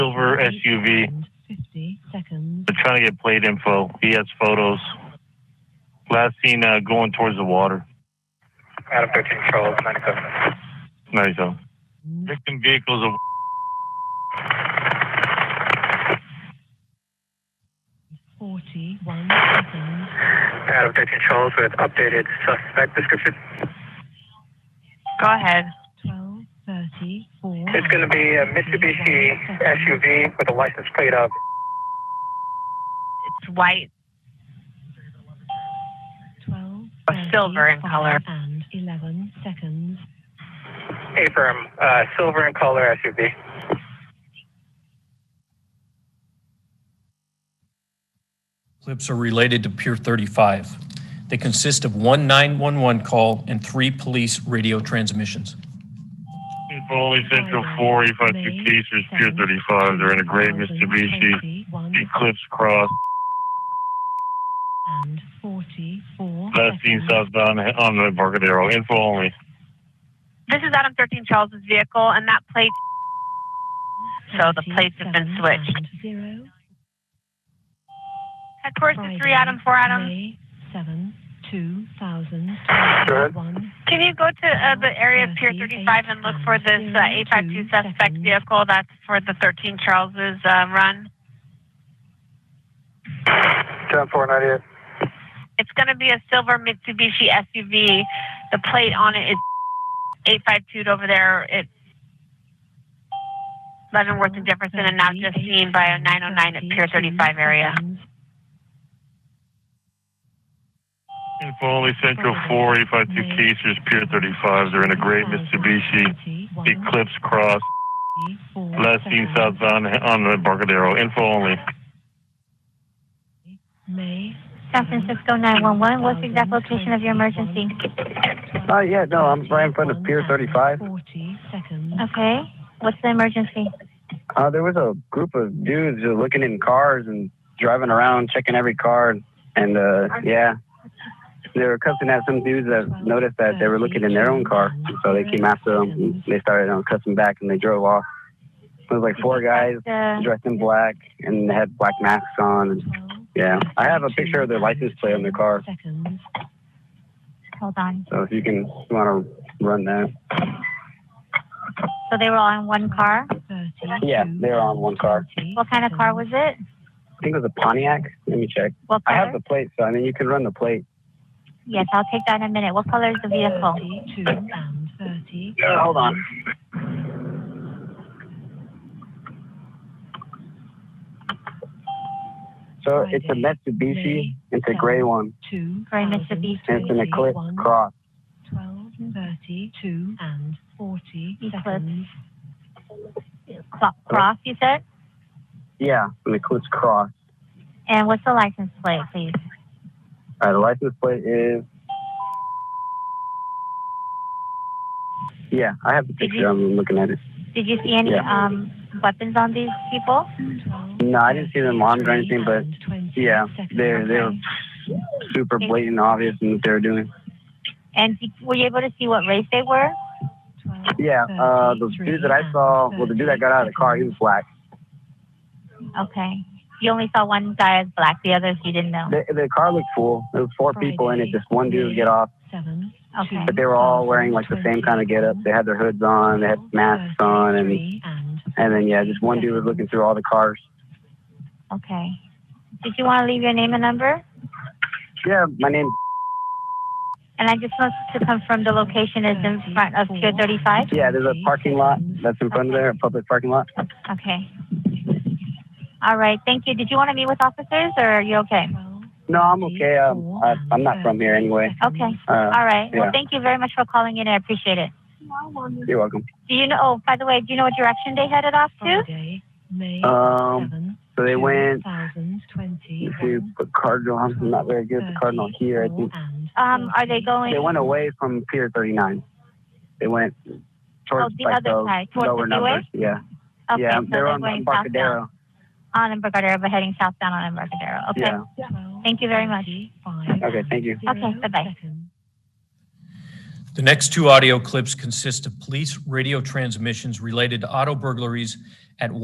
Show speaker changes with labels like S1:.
S1: SUV.
S2: 50 seconds.
S1: They're trying to get plate info. He has photos. Last seen uh, going towards the water.
S3: Adam 13 Charles, 97.
S1: Nice. though. Victim vehicles of
S2: Forty-one seconds.
S3: Adam 13 Charles with updated suspect description.
S4: Go ahead.
S2: Twelve thirty-four.
S3: It's going to be a Mitsubishi SUV with a license plate of
S4: It's white.
S2: Twelve.
S4: A silver in color.
S2: And eleven seconds.
S3: Abram, uh, silver in color SUV.
S5: Clips are related to Pier 35. They consist of one 911 call and three police radio transmissions.
S1: Foley Central 4, E five two Casers, Pier 35. Oh, They're in a gray Mitsubishi
S2: Twenty-one
S1: Eclipse Cross.
S2: and forty-four.
S1: Last seen
S2: seconds.
S1: southbound on the Embarcadero. Info only.
S4: This is Adam 13 Charles's vehicle, and that plate. So the plates have been
S2: 37
S4: switched.
S2: and Zero.
S4: Headquarters
S2: Friday,
S4: is 3 Adam 4 Adam.
S2: May seven, two thousand.
S3: Good.
S2: One.
S4: Can you go to uh, the area of Pier 35 and look for this uh, 852 suspect vehicle? That's for the 13 Charles's uh, run.
S3: 10 498.
S4: It's going to be a silver Mitsubishi SUV. The plate on it is 852 over there. It's Leavenworth and Jefferson, and now just seen by a 909 at Pier 35 area.
S1: Info only Central 4, E five two Casers, Pier 35. They're in a gray Mitsubishi Eclipse Cross. Last seen southbound on the Embarcadero. Info only.
S2: May.
S6: San Francisco 911, what's the exact location of your emergency?
S3: Uh, yeah, no, I'm right in front of Pier 35.
S2: Forty seconds.
S6: Okay, what's the emergency?
S3: Uh, there was a group of dudes just looking in cars and driving around, checking every car. And uh, yeah, they were cussing at some dudes that noticed that they were looking in their own car. And so they came after them. And they started um, cussing back and they drove off. It was like four guys
S6: The,
S3: dressed in black and they had black masks on. And
S2: Twelve,
S3: yeah, I have a picture of their license plate on their car.
S2: Seconds.
S6: hold on.
S3: So if you can want to run that.
S6: So they were all in one car.
S2: Thirty-two.
S3: Yeah, they were on one car.
S6: What kind of car was it?
S3: I think it was a Pontiac. Let me check.
S6: What
S3: I
S6: color?
S3: have the plate, so I mean, you can run the plate.
S6: yes, I'll take that in a minute. What color is the vehicle?
S2: Thirty-two and thirty.
S3: Yeah, hold on. So it's a Mitsubishi. It's a gray one.
S2: Two.
S6: Gray Mitsubishi.
S3: And it's an Eclipse Cross.
S2: Twelve, thirty-two and forty
S6: Eclipse.
S2: seconds.
S6: Cl- Cross, you said?
S3: Yeah, an Eclipse Cross.
S6: And what's the license plate, please?
S3: All right, the license plate is. Yeah, I have the picture. I'm looking at it.
S6: Did you see any
S3: Yeah.
S6: um, weapons on these people?
S3: No, I didn't see them armed or anything, but
S2: And 20
S3: yeah,
S2: seconds.
S3: they're they're super blatant, obvious in what they were doing.
S6: And did, were you able to see what race they were?
S2: Twelve,
S3: Yeah, uh, the dude that I saw, well, the dude that got out of the car, he was black.
S6: Okay. You only saw one guy as black, the others you didn't know.
S3: The, the car looked full. There was four people in it. Just one dude would get off.
S2: Seven.
S6: Okay.
S3: But they were all wearing like the same kind of getup. They had their hoods on, they had masks on, and
S2: Three and
S3: and then yeah, just one dude was looking through all the cars.
S6: Okay. Did you want to leave your name and number?
S3: Yeah, my name.
S6: And I just want to confirm the location is in front of Pier 35.
S3: Yeah, there's a parking lot that's in front of there, a public parking lot.
S6: Okay. All right. Thank you. Did you want to meet with officers or are you okay?
S2: twelve.
S3: No, I'm okay. Um,
S6: Oh,
S3: I, I'm not from here anyway.
S6: Okay.
S3: Uh,
S6: All right.
S3: Yeah.
S6: Well, thank you very much for calling in. I appreciate it.
S3: you're welcome.
S6: Do you know, oh, by the way, do you know what direction they headed off to?
S2: Friday, May
S3: Um,
S2: seven.
S3: so they went
S2: 2020.
S3: to Cardinal. I'm not very good at the Cardinal here. I think
S6: Um, are they going?
S3: they went away from Pier 39. They went towards
S6: Oh, the
S3: like
S6: other
S3: those
S6: side, towards
S3: lower
S6: the freeway?
S3: numbers. Yeah,
S6: Okay,
S3: yeah,
S6: so
S3: they're on
S6: going
S3: Embarcadero.
S6: southbound on Embarcadero, but heading southbound on Embarcadero. Okay.
S3: Yeah.
S6: Thank you very much.
S3: Okay, thank you.
S6: Okay, bye-bye.
S5: The next two audio clips consist of police radio transmissions related to auto burglaries